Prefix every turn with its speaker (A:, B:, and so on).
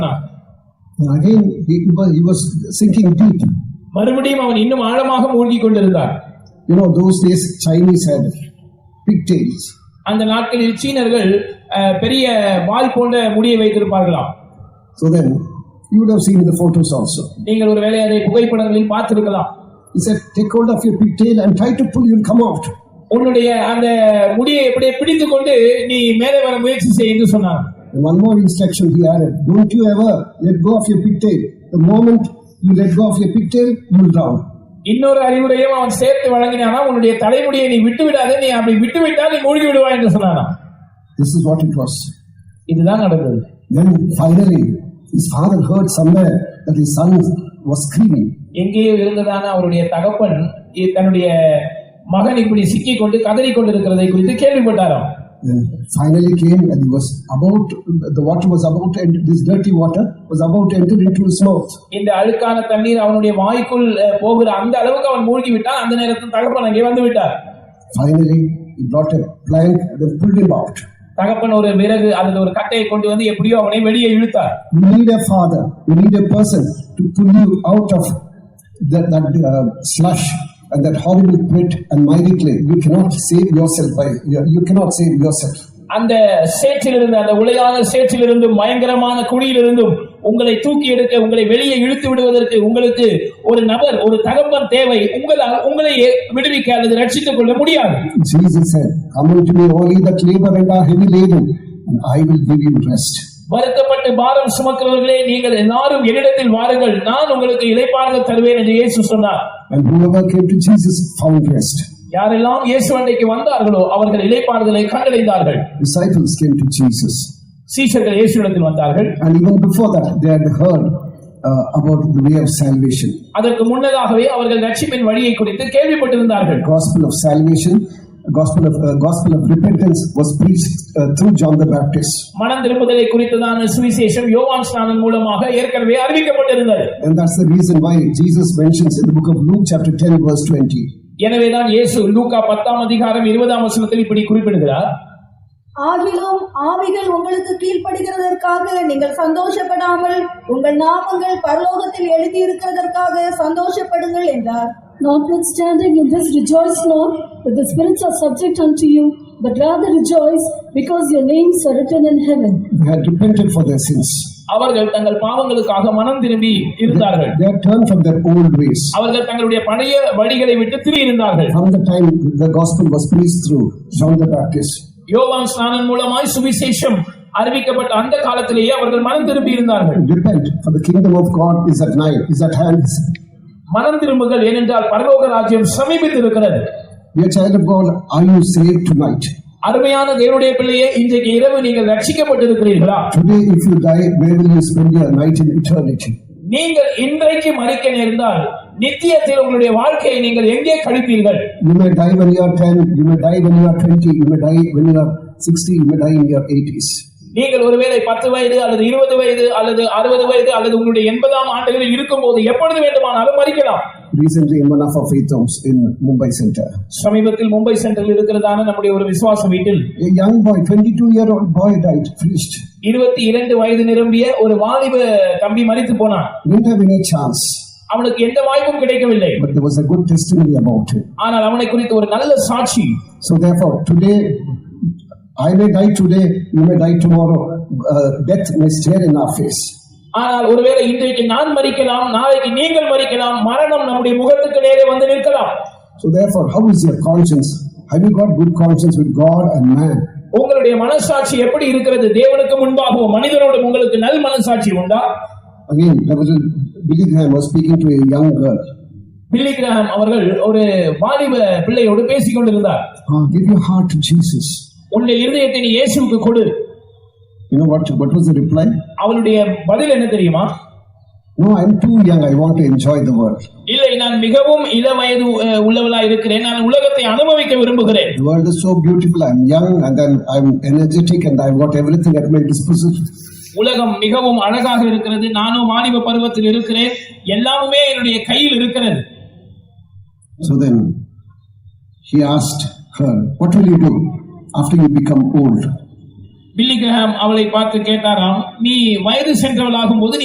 A: And again, he was, he was sinking deep.
B: மறுபடியும் அவன் இன்னும் ஆழமாக மூழ்கிக் கொண்டிருந்தான்
A: You know, those days Chinese had pigtails.
B: அந்த நாட்களில் சீனர்கள் அஹ், பெரிய வால் போன்ற முடியை வைத்திருப்பார்களாம்
A: So then, you would have seen the photos also.
B: நீங்கள் ஒரு வேளை அதை புகைப்படங்களில் பார்த்திருக்கலாம்
A: He said, take hold of your pigtail and try to pull, you'll come out.
B: உன்னுடைய அந்த முடியை இப்படியே பிடித்து கொண்டு நீ மேலே வர முயற்சி செய் என்று சொன்னான்
A: And one more instruction he added, don't you ever let go of your pigtail. The moment you let go of your pigtail, you'll drown.
B: இன்னொரு அறிவுரையும் அவன் சேர்த்து வழங்கினானா உன்னுடைய தலைமுடியை நீ விட்டு விடாத நீ அப்படி விட்டு விட்டால் நீ மூழ்கி விடுவாய் என்று சொன்னானா
A: This is what it was.
B: இதுதான் நடந்தது
A: Then finally, his father heard somewhere that his son was screaming.
B: எங்கேயோ இருந்ததான அவருடைய தகப்பன் இ- தன்னுடைய மகன் இப்படி சிக்கி கொண்டு கதறி கொண்டிருக்கிறதை குறித்து கேள்விப்பட்டாராம்
A: Then finally came and he was about, the water was about, and this dirty water was about to enter into his mouth.
B: இந்த அழுக்கான தண்ணீர் அவனுடைய வாய்க்குள் அஹ், போகிற அந்த அளவுக்கு அவன் மூழ்கி விட்டான் அந்த நேரத்தில் தகப்பன் அங்கே வந்து விட்டார்
A: Finally, he brought a plank and then pulled him out.
B: தகப்பன் ஒரு விறகு அல்லது ஒரு கட்டையை கொண்டு வந்து எப்படியோ அவனை வெளியே இழுத்தார்
A: You need a father, you need a person to pull you out of that, that uh, slush and that horrible pit and mighty clay. You cannot save yourself by, you, you cannot save yourself.
B: அந்த சேற்றிலிருந்து அந்த உலையான சேற்றிலிருந்தும் பயங்கரமான குழியிலிருந்தும் உங்களை தூக்கி எடுக்க உங்களை வெளியே இழுத்து விடுவதற்கு உங்களுக்கு ஒரு நபர் ஒரு தகப்பன் தேவை உங்களால் உங்களை விடுவிக்க அல்லது ரட்சித்துக் கொள்ள முடியாது
A: Jesus said, Come unto me, all ye that labor and are heavy laden, and I will give you rest.
B: வருத்தப்பட்டு பாரம் சுமக்கிறவர்களே நீங்கள் எல்லாரும் என்னிடத்தில் வாருங்கள் நான் உங்களுக்கு இளைப்பாறுதல் தருவேன் என்று இயேசு சொன்னார்
A: And whoever came to Jesus found rest.
B: யாரெல்லாம் இயேசு அன்றைக்கு வந்தார்களோ அவர்கள் இளைப்பாறுதலை கண்டடைந்தார்கள்
A: Disciples came to Jesus.
B: சீஷர்கள் இயேசுவிடத்தில் வந்தார்கள்
A: And even before that, they had heard uh, about the way of salvation.
B: அதற்கு முன்னதாகவே அவர்கள் ரட்சிப்பின் வழியை குறித்து கேள்விப்பட்டிருந்தார்கள்
A: The gospel of salvation, the gospel of, uh, gospel of repentance was preached uh, through John the Baptist.
B: மனம் திரும்புதலை குறித்ததான சுவிசேஷம் யோவான் ஸ்நானம் மூலமாக ஏற்கனவே அறிவிக்கப்பட்டிருந்தது
A: And that's the reason why Jesus mentions in the book of Luke, chapter 10, verse 20.
B: எனவேதான் இயேசு லூக்கா பத்தாம் அதிகாரம் இருபதாம் வசனத்தில் இப்படி குறிப்பிடுகிறார்
C: ஆகிலும் ஆவிகள் உங்களுக்கு கீழ்ப்படுகிறதற்காக நீங்கள் சந்தோஷப்படாமல் உங்கள் நாமங்கள் பரலோகத்தில் எழுதியிருக்கிறதற்காக சந்தோஷப்படுங்கள் என்றார்
D: Notwithstanding in this rejoice not that the spirits are subject unto you, but rather rejoice because your names are written in heaven.
A: They had repented for their sins.
B: அவர்கள் தங்கள் பாவங்களுக்காக மனம் திரும்பி இருந்தார்கள்
A: They had turned from their old ways.
B: அவர்கள் தங்களுடைய பழைய வழிகளை விட்டு திரும்பியிருந்தார்கள்
A: From the time the gospel was preached through John the Baptist,
B: யோவான் ஸ்நானம் மூலமாய் சுவிசேஷம் அறிவிக்கப்பட்ட அந்த காலத்திலேயே அவர்கள் மனம் திரும்பி இருந்தார்கள்
A: repent, for the kingdom of God is at nigh, is at hand.
B: மனம் திரும்புதல் ஏனென்றால் பரலோக ராஜ்யம் சமீபித்திருக்கிறது
A: Dear child of God, are you saved tonight?
B: அருமையான தேவனுடைய பிள்ளையே இன்றைக்கு இரவு நீங்கள் ரட்சிக்கப்பட்டிருக்கிறீர்களா
A: Today, if you die, where will you spend your night in eternity?
B: நீங்கள் இன்றைக்கு மறிக்க நேர்ந்தால் நித்தியத்தில் உங்களுடைய வாழ்க்கையை நீங்கள் எங்கே கழிப்பீர்கள்
A: You may die when you are 10, you may die when you are 20, you may die when you are 60, you may die in your 80s.
B: நீங்கள் ஒருவேளை பத்து வயது அல்லது இருபது வயது அல்லது அறுபது வயது அல்லது உங்களுடைய எண்பதாம் ஆண்டுகளில் இருக்கும்போது எப்பொழுது வேண்டுமானாலும் மறிக்கலாம்
A: Recently, in one of our faith homes in Mumbai Center,
B: சமீபத்தில் மும்பை சென்றில் இருக்கிறதான நம்முடைய ஒரு விசுவாச வீட்டில்
A: a young boy, 22 year old boy, died, preached.
B: இருபத்தி இரண்டு வயது நிரம்பிய ஒரு வாலிப தம்பி மறித்து போனான்
A: Didn't have any chance,
B: அவனுக்கு எந்த வாய்ப்பும் கிடைக்கவில்லை
A: but there was a good testimony about him.
B: ஆனால் அவனை குறித்து ஒரு நல்ல சாட்சி
A: So therefore, today, I may die today, you may die tomorrow. Uh, death may stare in our face.
B: ஆனால் ஒருவேளை இன்றைக்கு நான் மறிக்கலாம் நாளைக்கு நீங்கள் மறிக்கலாம் மரணம் நம்முடைய முகத்துக்கு நேரே வந்து நிற்கலாம்
A: So therefore, how is your conscience? Have you got good conscience with God and man?
B: உங்களுடைய மனசாட்சி எப்படி இருக்கிறது தேவனுக்கு முன்பாகவும் மனிதனோடும் உங்களுக்கு நல் மனசாட்சி உண்டா
A: Again, Reverend Billy Graham was speaking to a young girl.
B: Billy Graham அவர்கள் ஒரு வாலிப பிள்ளையோடு பேசிக் கொண்டிருந்தார்
A: "Ah, give your heart to Jesus.
B: உன்னுடைய இருதயத்தை நீ இயேசுவுக்கு கொடு
A: You know what? What was the reply?
B: அவளுடைய பதில் என்ன தெரியுமா
A: No, I'm too young. I want to enjoy the world.
B: இல்லை நான் மிகவும் இள வயது உள்ளவளா இருக்கிறேன் நான் உலகத்தை அனுபவிக்க விரும்புகிறேன்
A: The world is so beautiful. I'm young, and then I'm energetic, and I've got everything at my disposal.
B: உலகம் மிகவும் அழகாக இருக்கிறது நானும் வாலிப பருவத்தில் இருக்கிறேன் எல்லாமே என்னுடைய கையில் இருக்கிறது
A: So then he asked her, What will you do after you become old?
B: Billy Graham அவளை பார்த்து கேட்டாராம் நீ வயது சென்றவளாகும் போது